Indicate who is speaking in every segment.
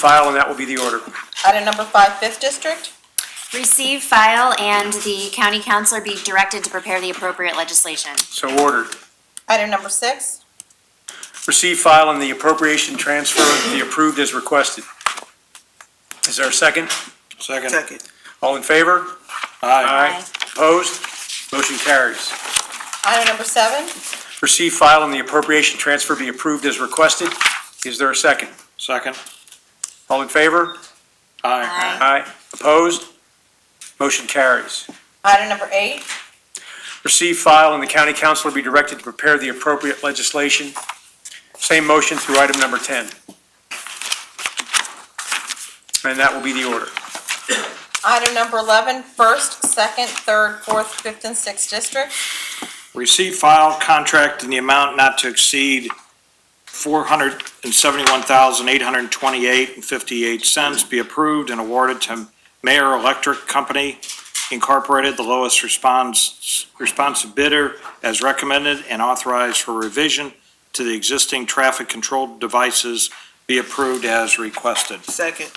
Speaker 1: file, and that will be the order.
Speaker 2: Item number five, fifth district.
Speaker 3: Receive, file, and the county counselor be directed to prepare the appropriate legislation.
Speaker 1: So ordered.
Speaker 2: Item number six.
Speaker 1: Receive, file, and the appropriation transfer be approved as requested. Is there a second?
Speaker 4: Second.
Speaker 5: Second.
Speaker 1: All in favor?
Speaker 4: Aye.
Speaker 3: Aye.
Speaker 1: Opposed? Motion carries.
Speaker 2: Item number seven.
Speaker 1: Receive, file, and the appropriation transfer be approved as requested. Is there a second?
Speaker 4: Second.
Speaker 1: All in favor?
Speaker 4: Aye.
Speaker 1: Aye. Opposed? Motion carries.
Speaker 2: Item number eight.
Speaker 1: Receive, file, and the county councilor be directed to prepare the appropriate legislation. Same motion through item number 10. And that will be the order.
Speaker 2: Item number 11, first, second, third, fourth, fifth, and sixth district.
Speaker 4: Receive file contract in the amount not to exceed four hundred and seventy-one thousand, eight hundred and twenty-eight and fifty-eight cents be approved and awarded to Mayor Electric Company Incorporated, the lowest response, responsive bidder as recommended and authorized for revision to the existing traffic control devices be approved as requested.
Speaker 5: Second.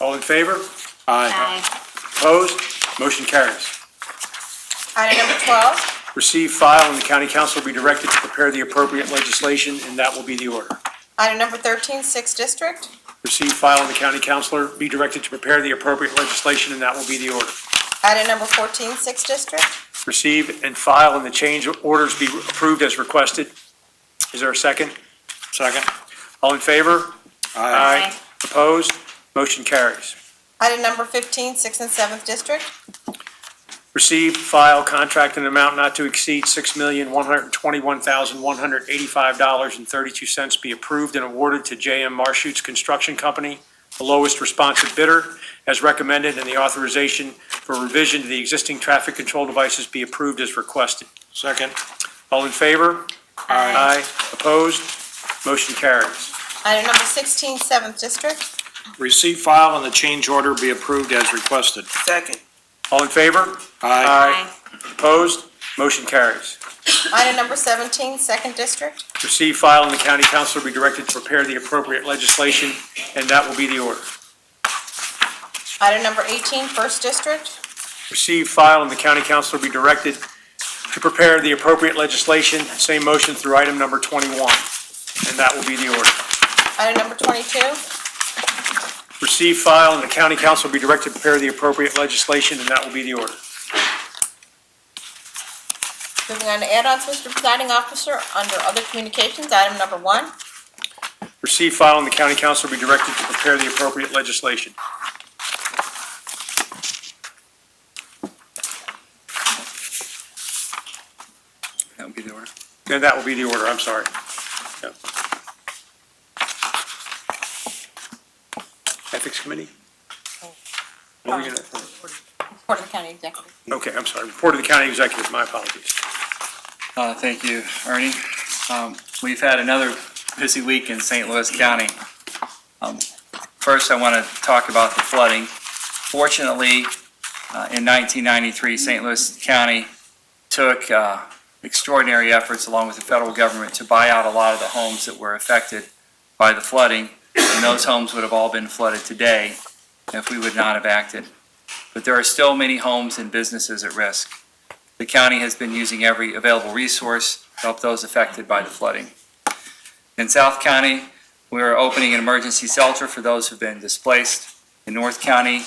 Speaker 1: All in favor?
Speaker 4: Aye.
Speaker 3: Aye.
Speaker 1: Opposed? Motion carries.
Speaker 2: Item number 12.
Speaker 1: Receive, file, and the county council will be directed to prepare the appropriate legislation, and that will be the order.
Speaker 2: Item number 13, sixth district.
Speaker 1: Receive, file, and the county councilor be directed to prepare the appropriate legislation, and that will be the order.
Speaker 2: Item number 14, sixth district.
Speaker 1: Receive and file, and the change orders be approved as requested. Is there a second?
Speaker 4: Second.
Speaker 1: All in favor?
Speaker 3: Aye.
Speaker 1: Opposed? Motion carries.
Speaker 2: Item number 15, sixth and seventh district.
Speaker 1: Receive, file, contract in an amount not to exceed $6,121,185.32 be approved and awarded to J.M. Marshut's Construction Company, the lowest responsive bidder, as recommended, and the authorization for revision to the existing traffic control devices be approved as requested.
Speaker 4: Second.
Speaker 1: All in favor? Aye. Opposed? Motion carries.
Speaker 2: Item number 16, seventh district.
Speaker 4: Receive file and the change order be approved as requested.
Speaker 5: Second.
Speaker 1: All in favor?
Speaker 4: Aye.
Speaker 1: Opposed? Motion carries.
Speaker 2: Item number 17, second district.
Speaker 1: Receive, file, and the county council will be directed to prepare the appropriate legislation, and that will be the order.
Speaker 2: Item number 18, first district.
Speaker 1: Receive, file, and the county council will be directed to prepare the appropriate legislation, same motion through item number 21, and that will be the order.
Speaker 2: Item number 22.
Speaker 1: Receive, file, and the county council will be directed to prepare the appropriate legislation, and that will be the order.
Speaker 2: Moving on to add-ons, Mr. Presiding Officer, under other communications, item number one.
Speaker 1: Receive, file, and the county council will be directed to prepare the appropriate legislation.
Speaker 6: That would be the order.
Speaker 1: And that will be the order, I'm sorry. Yep. Ethics Committee? What were you gonna-
Speaker 2: Port of the County Executive.
Speaker 1: Okay, I'm sorry, report to the county executive, my apologies.
Speaker 6: Uh, Thank you, Ernie. Um, We've had another busy week in St. Louis County. Um, First, I want to talk about the flooding. Fortunately, uh, in 1993, St. Louis County took uh, extraordinary efforts along with the federal government to buy out a lot of the homes that were affected by the flooding, and those homes would have all been flooded today if we would not have acted. But there are still many homes and businesses at risk. The county has been using every available resource to help those affected by the flooding. In South County, we are opening an emergency shelter for those who've been displaced. In North County,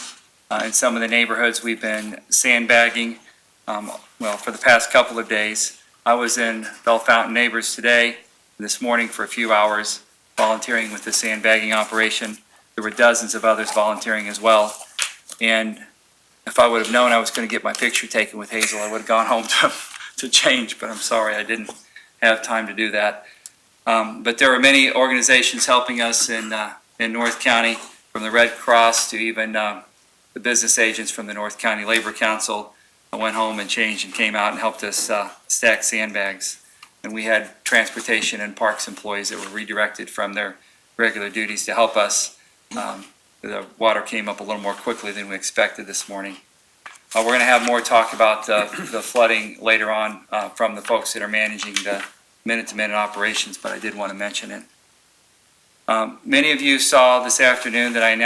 Speaker 6: uh, in some of the neighborhoods, we've been sandbagging, um, well, for the past couple of days. I was in Bell Fountain Neighbors today, this morning for a few hours, volunteering with the sandbagging operation. There were dozens of others volunteering as well. And if I would have known I was going to get my picture taken with Hazel, I would have gone home to, to change, but I'm sorry, I didn't have time to do that. Um, but there are many organizations helping us in, uh, in North County, from the Red Cross to even um, the business agents from the North County Labor Council. I went home and changed and came out and helped us uh, stack sandbags. And we had transportation and parks employees that were redirected from their regular duties to help us. Um, the water came up a little more quickly than we expected this morning. Uh, we're gonna have more talk about, uh, the flooding later on, uh, from the folks that are managing the minute-to-minute operations, but I did wanna mention it. Um, Many of you saw this afternoon that I announced